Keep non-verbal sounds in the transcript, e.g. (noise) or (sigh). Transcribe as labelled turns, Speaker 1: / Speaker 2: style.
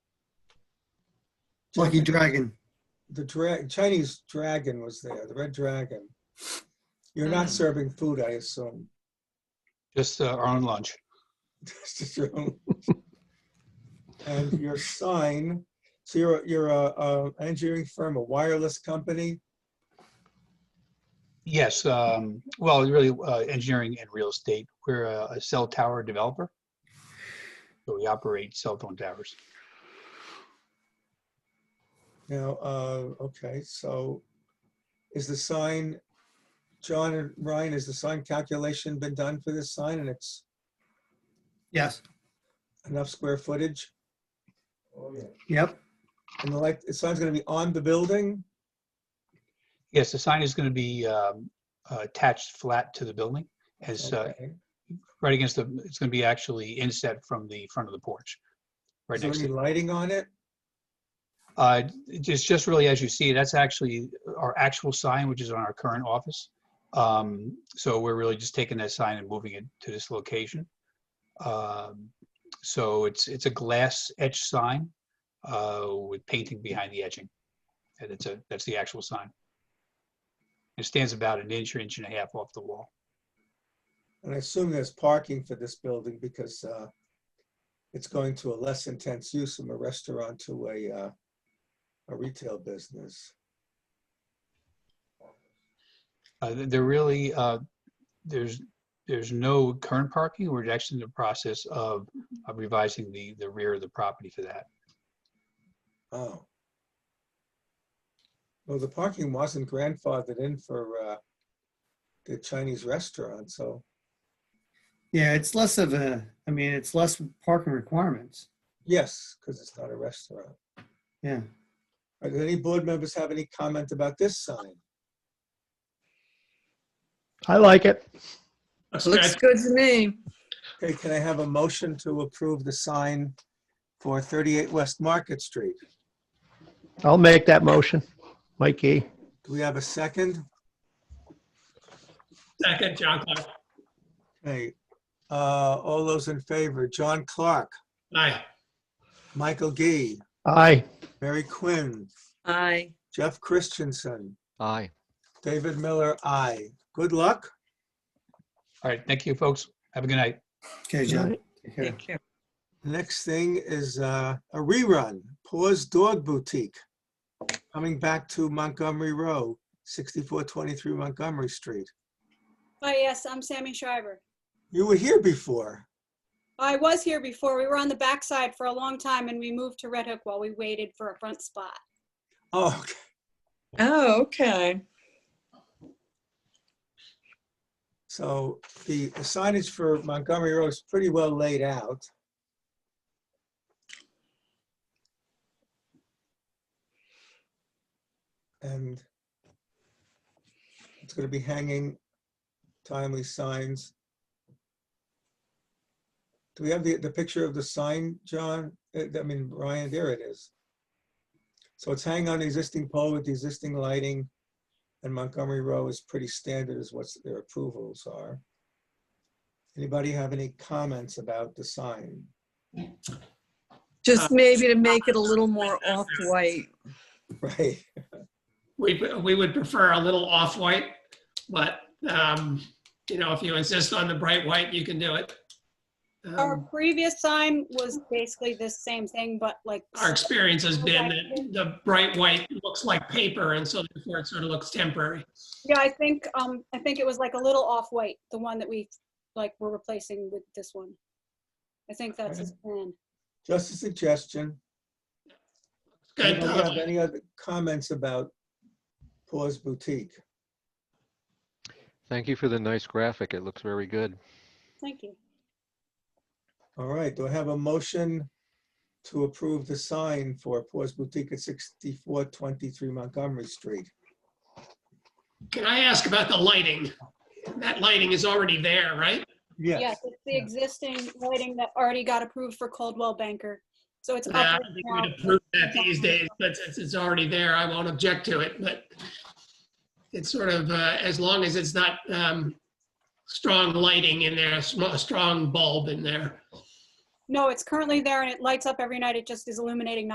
Speaker 1: Lucky Dragon.
Speaker 2: the dra- Chinese dragon was there, the red dragon. You're not
Speaker 3: Mm.
Speaker 2: serving food, I assume. (laughs)
Speaker 4: just uh, our own lunch.
Speaker 2: Just assume. and your sign. So you're a- you're a, a engineering firm, a wireless company.
Speaker 4: Yes, um, well, really uh, engineering and real estate. We're a, a cell tower developer. So we operate cell phone towers.
Speaker 2: Now, uh, okay, so is the sign, John and Ryan, has the sign calculation been done for this sign and it's
Speaker 1: Yes.
Speaker 2: enough square footage?
Speaker 4: Oh,
Speaker 1: Yep.
Speaker 2: And the light, the sign's gonna be on the building?
Speaker 4: Yes, the sign is going to be um, uh, attached flat to the building as uh,
Speaker 2: Okay.
Speaker 4: right against the, it's going to be actually inset from the front of the porch. Right
Speaker 2: Is there
Speaker 4: next to
Speaker 2: any lighting on it?
Speaker 4: Uh, Just, just really as you see, that's actually our actual sign, which is on our current office. Um, So we're really just taking that sign and moving it to this location. Um, So it's, it's a glass etched sign uh, with painting behind the etching. And it's a, that's the actual sign. It stands about an inch or inch and a half off the wall.
Speaker 2: And I assume there's parking for this building because uh, it's going to a less intense use from a restaurant to a, uh, a retail business.
Speaker 4: Uh, th- There really, uh, there's, there's no current parking. We're actually in the process of of revising the, the rear of the property for that.
Speaker 2: Oh. Well, the parking wasn't grandfathered in for uh, the Chinese restaurant, so,
Speaker 1: Yeah, it's less of a, I mean, it's less parking requirements.
Speaker 2: yes, because it's not a restaurant.
Speaker 1: Yeah.
Speaker 2: Are there any board members have any comment about this sign?
Speaker 5: I like it.
Speaker 3: Looks good to me.
Speaker 2: Okay, can I have a motion to approve the sign for 38 West Market Street?
Speaker 5: I'll make that motion. Mikey,
Speaker 2: Do we have a second?
Speaker 6: Second, John Clark.
Speaker 2: Okay, uh, all those in favor, John Clark,
Speaker 6: Aye.
Speaker 2: Michael Gee,
Speaker 5: aye.
Speaker 2: Mary Quinn,
Speaker 3: Aye.
Speaker 2: Jeff Christensen,
Speaker 7: Aye.
Speaker 2: David Miller, aye. Good luck.
Speaker 4: All right, thank you, folks. Have a good night.
Speaker 1: Okay, John. take care.
Speaker 3: Take care.
Speaker 2: Next thing is uh, a rerun, Paws Dog Boutique, coming back to Montgomery Row, 6423 Montgomery Street.
Speaker 8: Oh, yes, I'm Sammy Schreiber.
Speaker 2: You were here before.
Speaker 8: I was here before. We were on the backside for a long time and we moved to Red Hook while we waited for a front spot.
Speaker 2: Oh, okay.
Speaker 3: Oh, okay.
Speaker 2: so the the signage for Montgomery Row is pretty well laid out. And it's going to be hanging timely signs. Do we have the, the picture of the sign, John? Uh, I mean, Ryan, there it is. So it's hanging on the existing pole with the existing lighting. And Montgomery Row is pretty standard as what their approvals are. Anybody have any comments about the sign? (laughs)
Speaker 3: Just maybe to make it a little more off-white.
Speaker 2: Right,
Speaker 6: We, we would prefer a little off-white, but, um, you know, if you insist on the bright white, you can do it. Um,
Speaker 8: Our previous sign was basically the same thing, but like,
Speaker 6: Our experience has been that the bright white looks like paper, and so therefore it sort of looks temporary.
Speaker 8: yeah, I think, um, I think it was like a little off-white, the one that we like were replacing with this one. I think that's his plan.
Speaker 2: just a suggestion.
Speaker 6: Good.
Speaker 2: Anybody have any other comments about Paws Boutique?
Speaker 7: Thank you for the nice graphic. It looks very good.
Speaker 8: Thank you.
Speaker 2: All right, do I have a motion to approve the sign for Paws Boutique at 6423 Montgomery Street?
Speaker 6: Can I ask about the lighting? That lighting is already there, right?
Speaker 8: Yes, it's the existing lighting that already got approved for Coldwell Banker. So it's.
Speaker 6: Yeah, I
Speaker 8: up
Speaker 6: don't
Speaker 8: right
Speaker 6: think
Speaker 8: now.
Speaker 6: we'd approve that these days, but since it's already there, I won't object to it, but it's sort of, uh, as long as it's not um, strong lighting in there, a sm- a strong bulb in there.
Speaker 8: No, it's currently there and it lights up every night. It just is illuminating